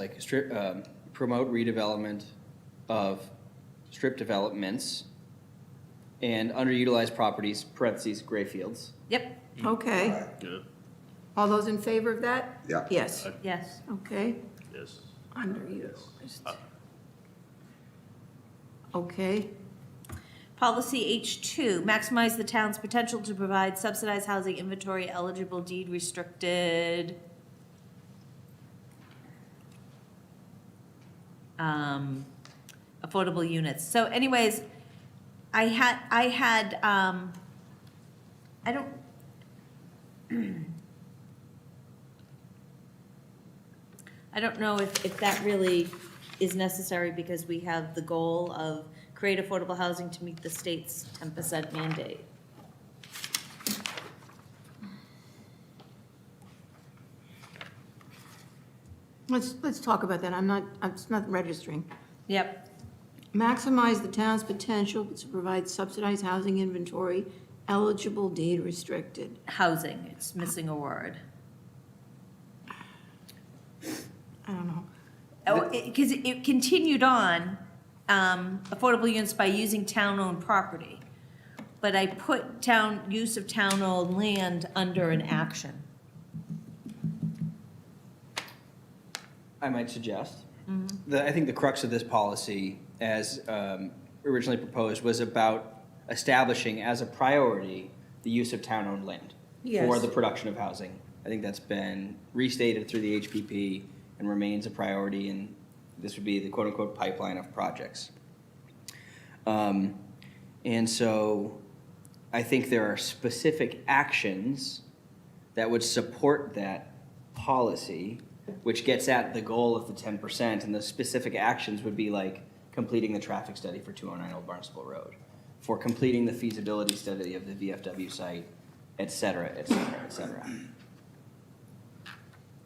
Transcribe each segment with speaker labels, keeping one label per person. Speaker 1: like strip, um, promote redevelopment of strip developments and underutilized properties, parentheses, gray fields.
Speaker 2: Yep,
Speaker 3: Okay. All those in favor of that?
Speaker 4: Yeah.
Speaker 3: Yes,
Speaker 2: yes.
Speaker 3: okay,
Speaker 5: Yes.
Speaker 3: underutilized. Okay,
Speaker 2: Policy H2, maximize the town's potential to provide subsidized housing inventory eligible deed restricted. Um, affordable units. So anyways, I had, I had, um, I don't. I don't know if, if that really is necessary because we have the goal of create affordable housing to meet the state's ten percent mandate.
Speaker 3: let's, let's talk about that. I'm not, I'm it's not registering.
Speaker 2: Yep.
Speaker 3: Maximize the town's potential to provide subsidized housing inventory eligible deed restricted.
Speaker 2: Housing, it's missing a word.
Speaker 3: I don't know.
Speaker 2: Oh, because it, it continued on, um, affordable units by using town-owned property. But I put town, use of town-owned land under an action.
Speaker 1: I might suggest. The, I think the crux of this policy, as um, originally proposed, was about establishing as a priority the use of town-owned land for
Speaker 3: Yes.
Speaker 1: the production of housing. I think that's been restated through the HPP and remains a priority, and this would be the quote-unquote pipeline of projects. Um, and so I think there are specific actions that would support that policy, which gets at the goal of the ten percent, and the specific actions would be like completing the traffic study for two oh nine Old Barnstable Road, for completing the feasibility study of the VFW site, et cetera, et cetera, et cetera.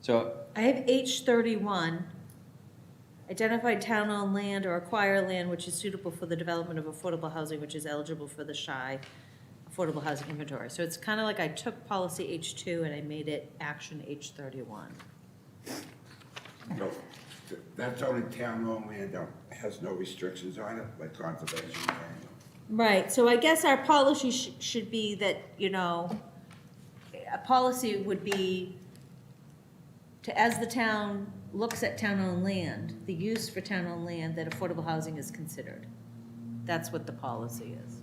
Speaker 1: So
Speaker 2: I have H thirty-one. Identify town-owned land or acquire land which is suitable for the development of affordable housing, which is eligible for the SHI Affordable Housing Inventory. So it's kind of like I took policy H two and I made it action H thirty-one.
Speaker 4: No, th- that's only town owned land, though, has no restrictions on it, like conservation land.
Speaker 2: Right, so I guess our policy sh- should be that, you know, a policy would be to, as the town looks at town-owned land, the use for town-owned land, that affordable housing is considered. That's what the policy is.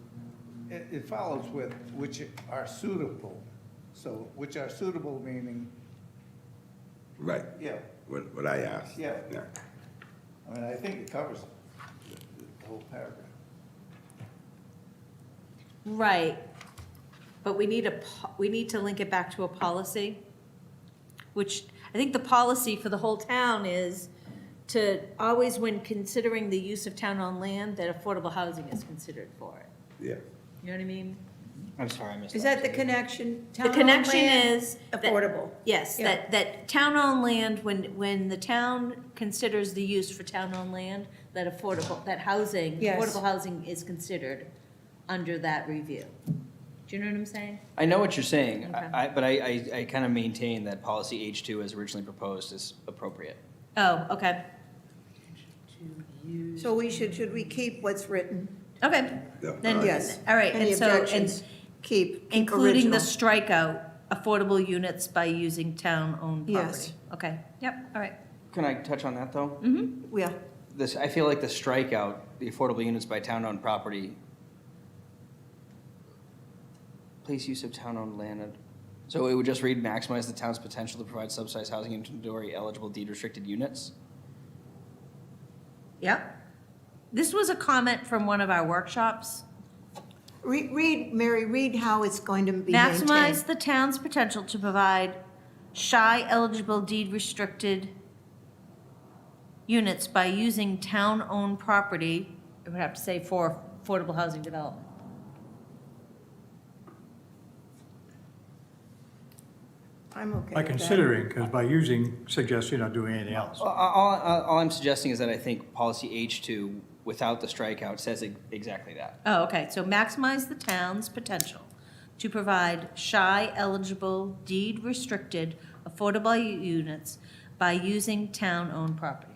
Speaker 6: It, it follows with which are suitable. So which are suitable meaning,
Speaker 4: Right,
Speaker 6: yeah,
Speaker 4: what, what I asked.
Speaker 6: Yeah. I mean, I think it covers the the whole paragraph.
Speaker 2: Right, but we need a, po- we need to link it back to a policy, which, I think the policy for the whole town is to always, when considering the use of town-owned land, that affordable housing is considered for it.
Speaker 4: Yeah,
Speaker 2: You know what I mean?
Speaker 1: I'm sorry, I missed.
Speaker 7: Is that the connection?
Speaker 2: The
Speaker 7: Town-owned
Speaker 2: connection
Speaker 7: land,
Speaker 2: is that-
Speaker 7: Affordable.
Speaker 2: Yes,
Speaker 7: Yeah.
Speaker 2: that, that town-owned land, when, when the town considers the use for town-owned land, that affordable, that housing,
Speaker 7: Yes.
Speaker 2: affordable housing is considered under that review. Do you know what I'm saying?
Speaker 1: I know what you're saying,
Speaker 2: Okay.
Speaker 1: I, I- but I, I, I kind of maintain that policy H two as originally proposed is appropriate.
Speaker 2: Oh, okay,
Speaker 7: So we should, should we keep what's written?
Speaker 2: okay.
Speaker 4: yeah.
Speaker 2: Then,
Speaker 4: all right.
Speaker 7: Yes.
Speaker 2: all right,
Speaker 7: Any
Speaker 2: and so,
Speaker 7: objections?
Speaker 2: and
Speaker 7: Keep, keep
Speaker 2: including the
Speaker 7: original.
Speaker 2: strikeout, affordable units by using town-owned property.
Speaker 7: Yes.
Speaker 2: Okay, yep, all right.
Speaker 1: Can I touch on that, though?
Speaker 7: Yeah,
Speaker 1: This, I feel like the strikeout, the affordable units by town-owned property, place use of town-owned land. So it would just read maximize the town's potential to provide subsidized housing inventory eligible deed restricted units?
Speaker 2: Yep. This was a comment from one of our workshops.
Speaker 7: Re- read, Mary, read how it's going to be maintained.
Speaker 2: Maximize the town's potential to provide shy eligible deed restricted units by using town-owned property, I would have to say for affordable housing development.
Speaker 7: I'm okay
Speaker 8: By
Speaker 7: with that.
Speaker 8: considering, because by using suggests you're not doing anything else.
Speaker 1: All, all, all- all I'm suggesting is that I think policy H two, without the strikeout, says e- exactly that.
Speaker 2: Oh, okay, so maximize the town's potential to provide shy eligible deed restricted affordable units by using town-owned property.